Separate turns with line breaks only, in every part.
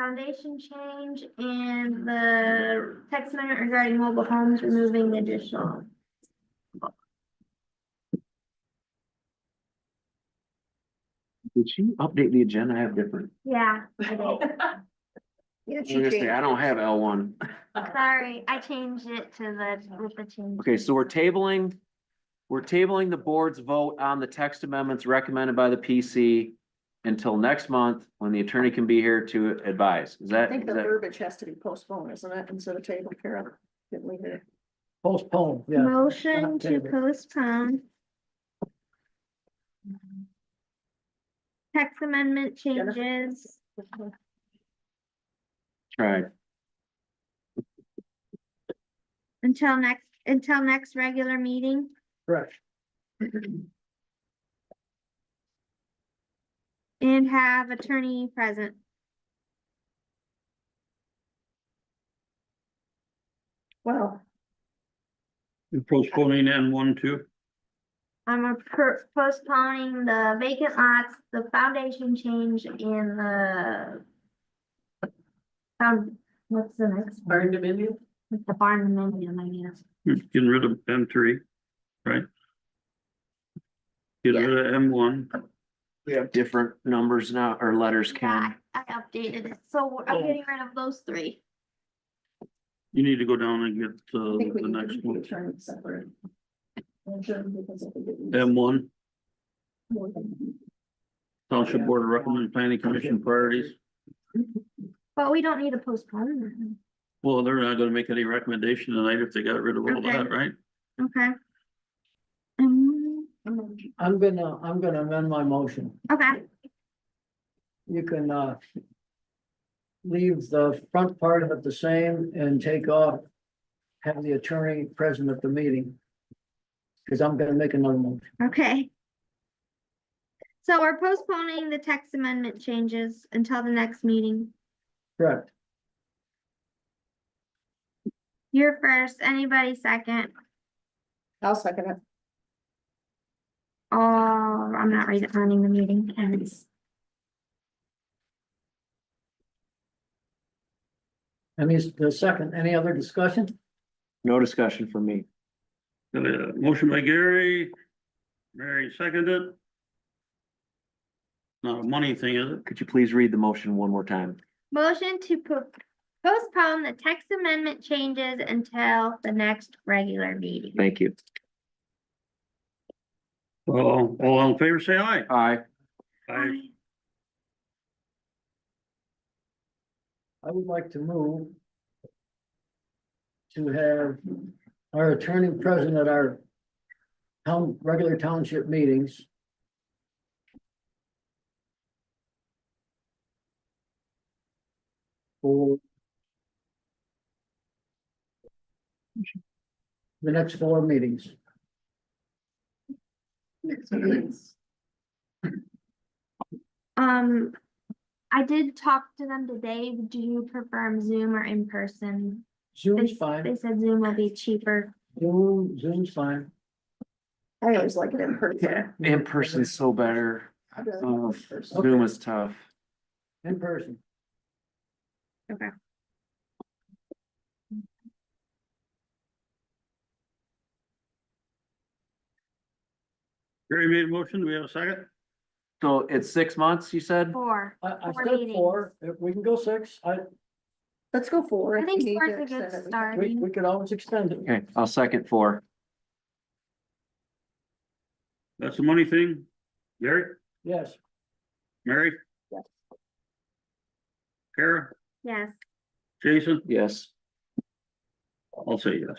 foundation change and the text amendment regarding mobile homes removing the additional.
Did you update the agenda? I have different.
Yeah, I did.
Seriously, I don't have L one.
Sorry, I changed it to the, with the change.
Okay, so we're tabling, we're tabling the board's vote on the text amendments recommended by the PC until next month, when the attorney can be here to advise. Is
I
that,
think
is
the
that
verbiage has to be postponed, isn't it, instead of table, Karen? Didn't we hear?
Postpone, yeah.
Motion
not
to
tabled.
postpone. Text amendment
Jennifer?
changes.
right?
Until next, until next regular meeting,
Correct.
and have attorney present.
Well,
You're postponing N one too?
I'm a per- postponing the vacant lots, the foundation change in the. Um, what's the next, one?
Barn dominion?
With the barn amendment, I guess.
You're Getting rid of M three, right? Get rid of M one.
We have different numbers now, or letters,
Yeah,
Ken.
I I updated it, so we're- I'm
Oh.
getting rid of those three.
You need to go down and get uh,
I think we
the
need to
next
be
one.
attorney separate. And then because of the-
Um,
M one,
Yeah.
township board recommend planning commission priorities.
But we don't need to postpone them.
Well, they're not gonna make any recommendation tonight if they got rid of all
Okay.
that, right?
Okay. Um,
I'm gonna, I'm gonna amend my motion.
okay,
You can, uh, leave the front part of it the same and take off, have the attorney present at the meeting. Cause I'm gonna make another motion.
okay. So we're postponing the text amendment changes until the next meeting.
Correct.
You're first, anybody second?
I'll second it.
Oh, I'm not re- running the meeting. Karen.
Any, the second, any other discussion?
No discussion for me.
Got a motion by Gary. Mary seconded. Not a money thing, is it?
Could you please read the motion one more time?
Motion to po- postpone the text amendment changes until the next regular meeting.
Thank you.
Well, all in favor, say aye.
All right,
Aye.
I would like to move to have our attorney present at our town, regular township meetings. For the next four meetings.
Um, I did talk to them today. Do you prefer Zoom or in person?
Zoom's
They-
fine,
They said Zoom will be cheaper.
Zoom, Zoom's fine.
I always like it in person.
in person's so better.
I really
Oh,
like it in person.
Zoom is tough.
In person.
Gary made a motion. Do we have a second?
So it's six months, you said?
Four.
I, I
Four
said four, if we can go six, I,
Let's go forward.
I
If
think
we need
four's
to
a good
extend it, we can.
start.
we, we could always extend it.
Okay, I'll second four.
That's the money thing. Gary,
Yes,
Mary?
Yes.
Kara,
Yes.
Jason,
Yes.
I'll say yes.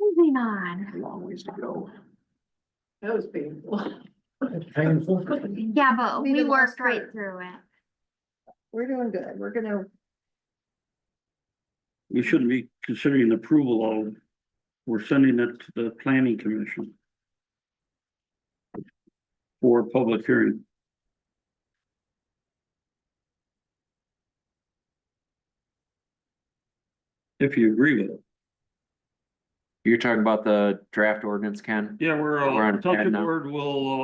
Moving on.
Long ways to go.
That was painful.
it's painful.
Yeah, but
We
we
did
worked
last
right
part.
through it.
We're doing good. We're gonna,
We shouldn't be considering approval of, we're sending it to the planning commission. For public hearing. If you agree with it.
You're talking about the draft ordinance, Ken?
Yeah, we're,
We're
uh,
on
Township
ad now.
Board will, uh,